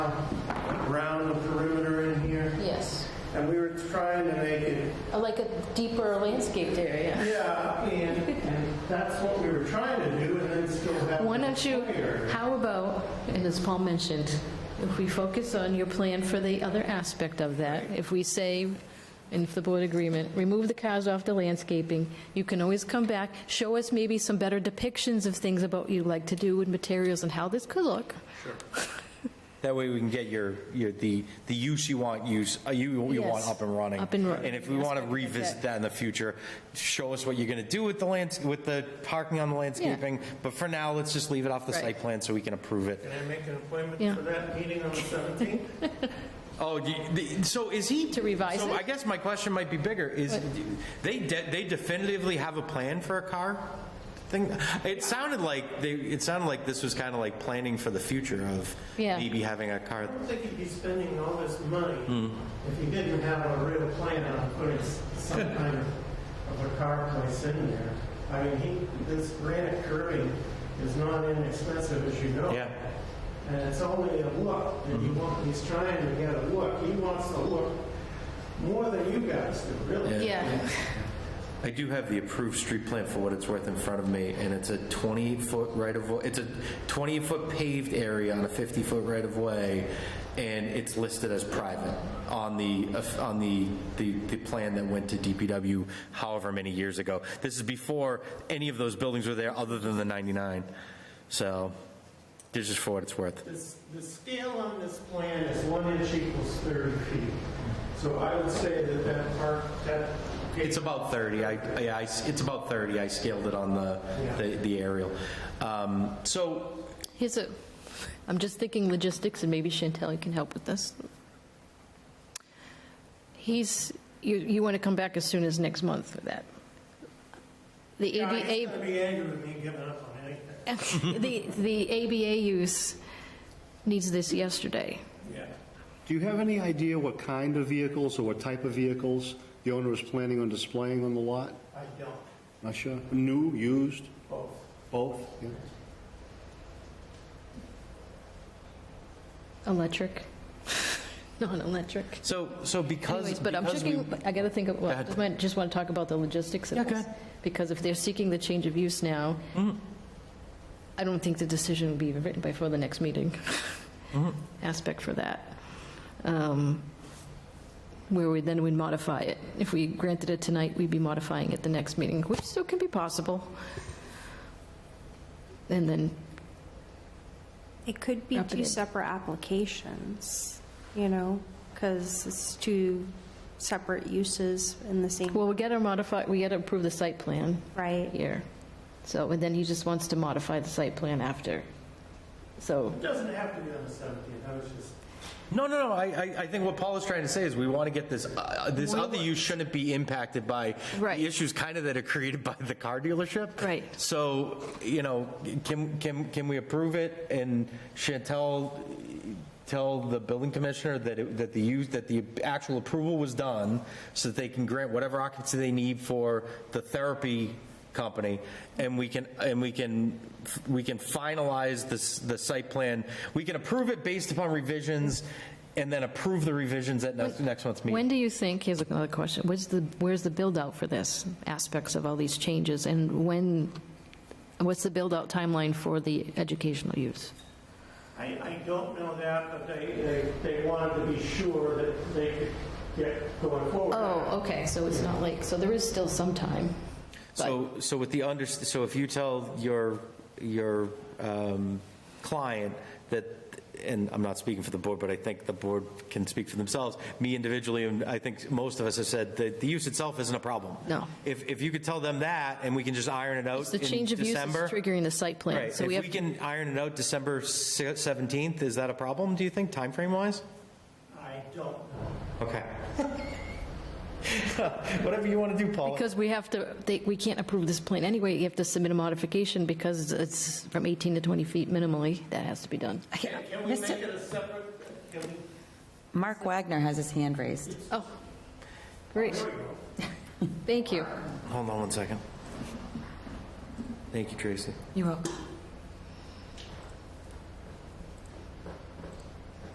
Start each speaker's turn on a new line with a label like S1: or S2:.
S1: around the perimeter in here,
S2: Yes,
S1: and we were trying to make it,
S2: Uh, like a deeper landscaped area.
S1: yeah, and, and that's what we were trying to do, and then still have.
S2: Why
S1: the
S2: don't you,
S1: foyer.
S2: how about, and as Paul mentioned, if we focus on your plan for the other aspect of that, if we say, and if the board agreement, remove the cars off the landscaping, you can always come back, show us maybe some better depictions of things about what you like to do with materials and how this could look.
S3: That way we can get your, your, the, the use you want use, uh, you, you want
S2: Yes,
S3: up and running.
S2: up and running.
S3: And if we want to revisit that in the future, show us what you're going to do with the lands, with the parking on the landscaping. But for now, let's just leave it off the
S2: Right.
S3: site plan so we can approve it.
S1: Can I make an
S2: Yeah.
S1: appointment for that meeting on the 17th?
S3: Oh, do you- the- so is he?
S2: To revise
S3: So
S2: it?
S3: I guess my question might be bigger, is,
S2: What?
S3: they, de- they definitively have a plan for a car thing? It sounded like, they, it sounded like this was kind of like planning for the future of
S2: Yeah.
S3: maybe having a car.
S1: I don't think you'd be spending all this
S3: Hmm.
S1: money if you didn't have a real plan on putting s- some kind of, of a car place in there. I mean, he, this granite curving is not inexpensive, as you know.
S3: Yeah. Hmm.
S1: And it's only a look, and he want, he's trying to get a look. He wants to look more than you guys do, really.
S2: Yeah.
S3: I do have the approved street plan for what it's worth in front of me, and it's a 28-foot right-of-way, it's a 28-foot paved area on a 50-foot right-of-way, and it's listed as private on the, on the, the the plan that went to DPW however many years ago. This is before any of those buildings were there, other than the 99. So, this is for what it's worth.
S1: This, the scale on this plan is one inch equals 30 feet. So I would say that that park, that.
S3: It's about 30, I, yeah, I- it's about 30, I scaled it on the, the- the aerial. Um, So,
S2: Here's a, I'm just thinking logistics, and maybe Chantel can help with this. He's, you, you want to come back as soon as next month for that. The
S1: Yeah, He's
S2: ABA,
S1: gonna be angry with me giving up on anything.
S2: the, the ABA use needs this yesterday.
S1: Yeah.
S4: Do you have any idea what kind of vehicles or what type of vehicles the owner is planning on displaying on the lot?
S1: I don't,
S4: Not sure. New, used,
S1: both.
S4: both? Yeah.
S2: Electric, non-electric.
S3: So, so because.
S2: Anyways, but I'm
S3: because
S2: checking,
S3: we-
S2: I got to think of, well,
S3: ahead.
S2: just want- just want to talk about the logistics
S3: Yeah,
S2: of
S3: go
S2: this.
S3: ahead. Mm-hmm.
S2: Because if they're seeking the change of use now, I don't think the decision will be even written before the next meeting.
S3: Mm-hmm.
S2: Aspect for that. Um, Where we, then we'd modify it. If we granted it tonight, we'd be modifying it the next meeting, which still can be possible. And then,
S5: It could be
S2: Up it
S5: two
S2: is.
S5: separate applications, you know, because it's two separate uses in the same,
S2: well, we got to modify, we got to approve the site plan.
S5: right?
S2: here. So, and then he just wants to modify the site plan after. So,
S1: It doesn't have to be on the 17th, I was just,
S3: No, no, no, I, I, I think what Paul is trying to say is we want to get this, uh, this other use shouldn't be impacted by
S2: Right.
S3: the issues kind of that are created by the car dealership.
S2: Right.
S3: So, you know, can, can, can we approve it and Chantel tell the building commissioner that it, that the use, that the actual approval was done so that they can grant whatever occupancy they need for the therapy company, and we can, and we can, we can finalize this, the site plan. We can approve it based upon revisions, and then approve the revisions at next, next month's
S2: when
S3: meeting.
S2: do you think, here's another question, where's the, where's the build-out for this, aspects of all these changes? And when, what's the build-out timeline for the educational use?
S1: I, I don't know that, but they, they, they wanted to be sure that they could get going forward.
S2: Oh. okay, so it's not like, so there is still some time.
S3: So, so with the under, so if you tell your, your um, client that, and I'm not speaking for the board, but I think the board can speak for themselves, me individually, and I think most of us have said that the use itself isn't a problem.
S2: No.
S3: If, if you could tell them that, and we can just iron it out
S2: The
S3: in
S2: change of use is
S3: December.
S2: triggering the site plan.
S3: Right,
S2: So we
S3: if
S2: have,
S3: we can iron it out December se- 17th, is that a problem, do you think, timeframe-wise?
S1: I don't know.
S3: Okay. Whatever you want to do, Paul.
S2: because we have to, they- we can't approve this plan anyway, you have to submit a modification because it's from 18 to 20 feet minimally, that has to be done.
S1: Can can we make it a separate, can we?
S6: Mark Wagner has his hand raised.
S2: Oh, great. Thank you.
S3: Hold on one second. Thank you, Tracy.
S6: You're welcome.